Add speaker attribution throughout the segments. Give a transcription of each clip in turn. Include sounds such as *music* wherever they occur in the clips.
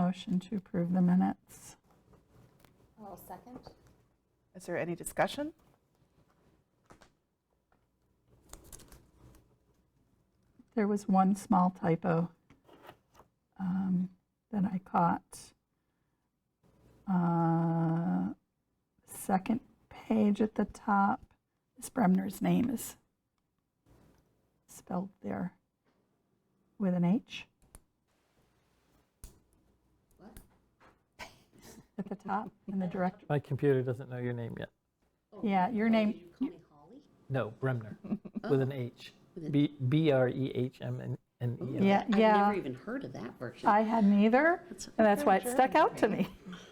Speaker 1: Motion to approve the minutes.
Speaker 2: I'll second.
Speaker 3: Is there any discussion?
Speaker 1: There was one small typo um, that I caught. Uh, Second page at the top, Ms. Bremner's name is spelled there with an H. At the
Speaker 2: *laughs*
Speaker 1: top, in the direct,
Speaker 4: My computer doesn't know your name yet.
Speaker 2: Oh,
Speaker 1: yeah, your name,
Speaker 2: Call me Holly?
Speaker 4: No,
Speaker 2: *laughs*
Speaker 4: Bremner, with an H.
Speaker 2: Oh. With an-
Speaker 4: B B R E H M N N E R.
Speaker 1: Yeah,
Speaker 2: I've
Speaker 1: yeah.
Speaker 2: never even heard of that version.
Speaker 1: I hadn't either,
Speaker 2: That's-
Speaker 1: and that's why it stuck out to me.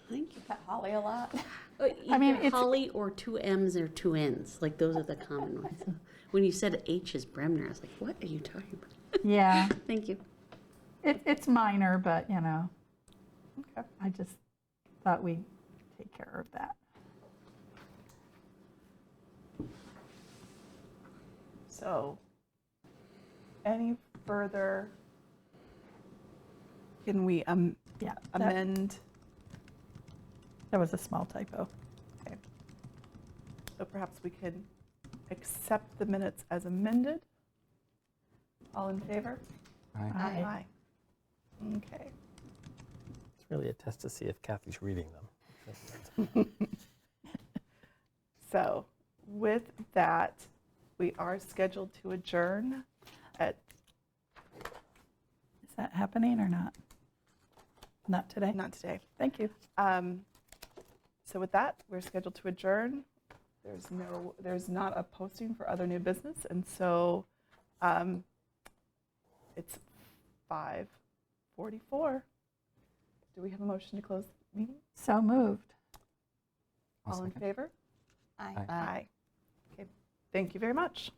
Speaker 2: Thank you.
Speaker 1: Holly a lot.
Speaker 2: I
Speaker 1: Uh, mean, it's-
Speaker 2: Holly or two M's or two N's, like those are the common ones. So When you said H is Bremner, I was like, what are you talking about?
Speaker 1: Yeah,
Speaker 2: Thank you.
Speaker 1: it, it's minor, but you know,
Speaker 3: Okay.
Speaker 1: I just thought we'd take care of that.
Speaker 3: So, any further? Can we um,
Speaker 1: Yeah, that,
Speaker 3: amend?
Speaker 1: that was a small typo.
Speaker 3: Okay. So perhaps we could accept the minutes as amended? All in favor?
Speaker 1: Aye.
Speaker 3: Okay.
Speaker 4: It's really a test to see if Kathy's reading them.
Speaker 3: So with that, we are scheduled to adjourn at,
Speaker 1: Is that happening or not? Not today?
Speaker 3: not today.
Speaker 1: Thank you.
Speaker 3: Um, So with that, we're scheduled to adjourn. There's no, there's not a posting for other new business, and so um, it's 5:44. Do we have a motion to close the meeting?
Speaker 1: So moved.
Speaker 3: All in favor?
Speaker 4: Aye.
Speaker 3: Okay, thank you very much.